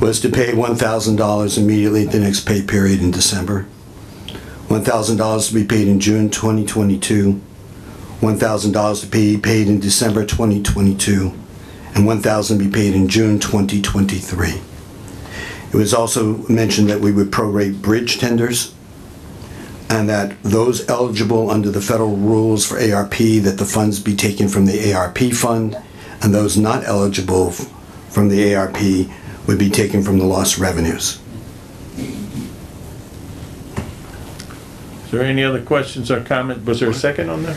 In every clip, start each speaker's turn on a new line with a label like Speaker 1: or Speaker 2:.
Speaker 1: was to pay $1,000 immediately at the next pay period in December, $1,000 to be paid in June 2022, $1,000 to be paid in December 2022, and $1,000 to be paid in June 2023. It was also mentioned that we would prorate bridge tenders and that those eligible under the federal rules for ARP, that the funds be taken from the ARP fund, and those not eligible f- from the ARP would be taken from the lost revenues.
Speaker 2: Is there any other questions or comment? Was there a second on the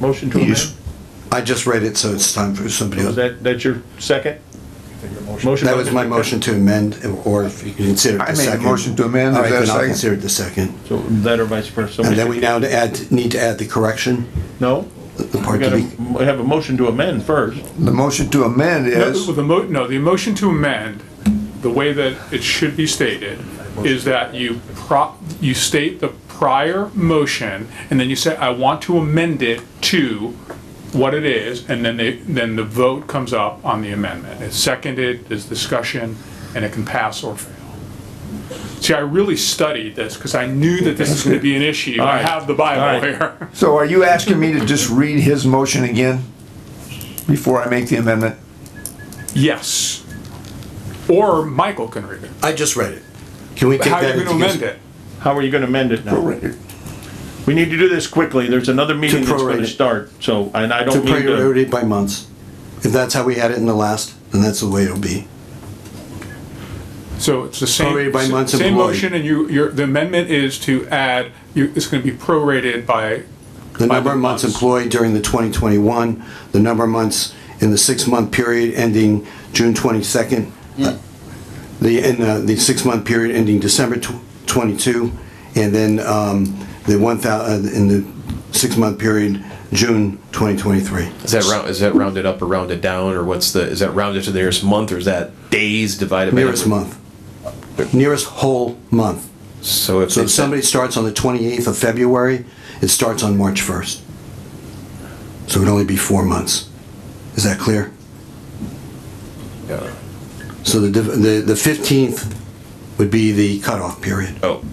Speaker 2: motion to amend?
Speaker 1: Yes. I just read it, so it's time for somebody
Speaker 2: Was
Speaker 1: else.
Speaker 2: that, that your second? Motion.
Speaker 1: That was my motion to amend, or if you consider it
Speaker 3: I
Speaker 1: the
Speaker 3: made a
Speaker 1: second.
Speaker 3: motion to amend.
Speaker 1: All
Speaker 3: Is
Speaker 1: right,
Speaker 3: there a
Speaker 1: then I'll
Speaker 3: second?
Speaker 1: consider it the second.
Speaker 2: So that or vice versa?
Speaker 1: And then we now to add, need to add the correction,
Speaker 2: No?
Speaker 1: the
Speaker 2: We
Speaker 1: part to
Speaker 2: gotta
Speaker 1: be,
Speaker 2: m- have a motion to amend first.
Speaker 3: The motion to amend
Speaker 4: No,
Speaker 3: is,
Speaker 4: well, the mo, no, the motion to amend, the way that it should be stated, is that you pro, you state the prior motion, and then you say, I want to amend it to what it is, and then they, then the vote comes up on the amendment. It's seconded, there's discussion, and it can pass or fail. See, I really studied this, because I knew that this is gonna be an issue. I have the Bible
Speaker 2: Alright.
Speaker 4: here.
Speaker 3: so are you asking me to just read his motion again before I make the amendment?
Speaker 4: Yes. Or Michael can read it.
Speaker 1: I just read it. Can we take
Speaker 4: How
Speaker 1: that?
Speaker 4: are you
Speaker 1: into
Speaker 4: gonna amend
Speaker 1: consideration?
Speaker 4: it?
Speaker 2: How are you gonna amend it now?
Speaker 3: Prorated.
Speaker 2: We need to do this quickly. There's another meeting that's
Speaker 1: prorate
Speaker 2: gonna
Speaker 1: it.
Speaker 2: start, so, and I
Speaker 1: To
Speaker 2: don't mean to.
Speaker 1: priority by months. If that's how we had it in the last, then that's the way it'll be.
Speaker 4: So it's the same,
Speaker 1: Prorated by months
Speaker 4: same
Speaker 1: employed.
Speaker 4: motion, and you, your, the amendment is to add, you, it's gonna be prorated by,
Speaker 1: The
Speaker 4: By
Speaker 1: number of
Speaker 4: the
Speaker 1: months
Speaker 4: months.
Speaker 1: employed during the 2021, the number of months in the six-month period ending June 22nd, uh, the, in uh, the six-month period ending December tw- 22, and then um, the 1,000, in the six-month period, June 2023.
Speaker 5: Is that round, is that rounded up or rounded down, or what's the, is that rounded to the nearest month, or is that days divided by?
Speaker 1: Nearest
Speaker 5: number-
Speaker 1: month. Nearest whole month.
Speaker 5: So if
Speaker 1: So if
Speaker 5: it's,
Speaker 1: somebody starts on the 28th of February, it starts on March 1st. So it'd only be four months. Is that clear?
Speaker 5: Yeah.
Speaker 1: So the, div- the the 15th would be the cutoff period,
Speaker 5: oh,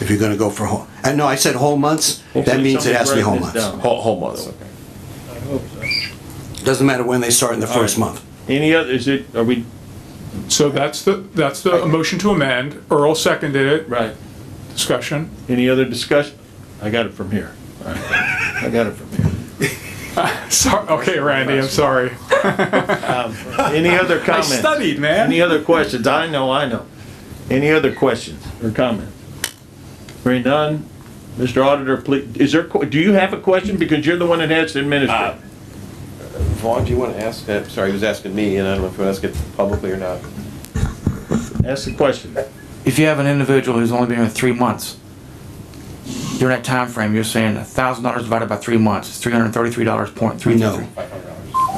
Speaker 1: if you're gonna go for whole, and no, I said whole months, that means it has to be whole
Speaker 2: Somebody wrote
Speaker 1: months.
Speaker 2: this down.
Speaker 5: whole, whole month, okay.
Speaker 1: Doesn't matter when they start in the first
Speaker 2: right.
Speaker 1: month.
Speaker 2: Any other, is it, are we,
Speaker 4: so that's the, that's the motion to amend, Earl seconded it,
Speaker 2: right,
Speaker 4: discussion.
Speaker 2: any other discussion? I got it from here. All right. I got it from here.
Speaker 4: Sorry, okay, Randy, I'm sorry.
Speaker 2: Any other
Speaker 4: I
Speaker 2: comments?
Speaker 4: studied, man.
Speaker 2: Any other questions? I know, I know. Any other questions or comments? Hearing none, Mr. Auditor, please, is there, que- do you have a question? Because you're the one that has to administer.
Speaker 4: Uh.
Speaker 6: Vaughn, do you want to ask, uh, sorry, he was asking me, and I don't know if you want to ask it publicly or not.
Speaker 2: Ask the question.
Speaker 7: if you have an individual who's only been here three months, during that time frame, you're saying a thousand dollars divided by three months is three hundred thirty-three dollars point three.
Speaker 1: No,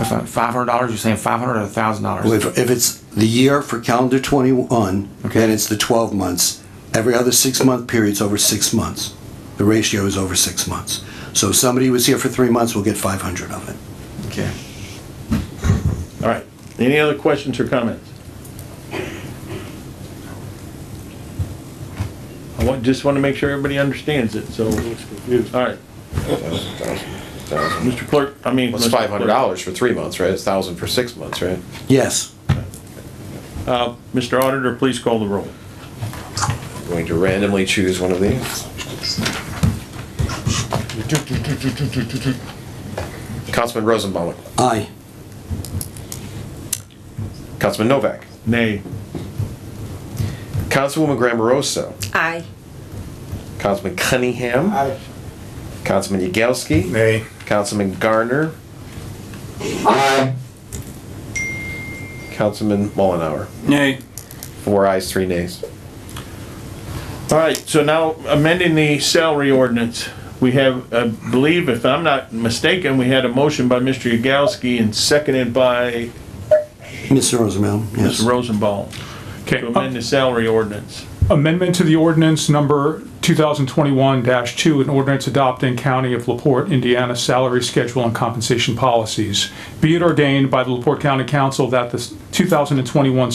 Speaker 7: Five hundred dollars, you're saying five hundred or a thousand dollars?
Speaker 1: if, if it's the year for calendar 21, then
Speaker 7: Okay.
Speaker 1: it's the 12 months. Every other six-month period's over six months. The ratio is over six months. So if somebody was here for three months, we'll get 500 of it.
Speaker 7: Okay.
Speaker 2: All right. Any other questions or comments? I want, just want to make sure everybody understands it, so. All right. Mr. Clerk, I mean.
Speaker 5: Well, It's
Speaker 2: Mr.
Speaker 5: five
Speaker 2: Clerk.
Speaker 5: hundred dollars for three months, right? It's thousand for six months, right?
Speaker 1: Yes,
Speaker 2: Uh, Mr. Auditor, please call the roll.
Speaker 5: Going to randomly choose one of these. Councilman Rosenbaum,
Speaker 1: aye.
Speaker 5: Councilman Novak,
Speaker 2: Nay.
Speaker 5: Councilwoman Grammarosa,
Speaker 8: Aye.
Speaker 5: Councilman Cunningham. Councilman Yagowski.
Speaker 3: Nay.
Speaker 5: Councilman Garner. Councilman Mullenhour.
Speaker 4: Nay.
Speaker 5: Four ayes, three nays.
Speaker 2: All right, so now amending the salary ordinance, we have, I believe, if I'm not mistaken, we had a motion by Mr. Yagowski and seconded by
Speaker 1: Mr. Rosenbaum, yes.
Speaker 2: Mr. Rosenbaum
Speaker 4: Okay,
Speaker 2: to amend the salary ordinance.
Speaker 4: amendment to the ordinance number 2021-2, an ordinance adopting County of LaPorte, Indiana salary schedule and compensation policies. Be it ordained by the LaPorte County Council that the 2021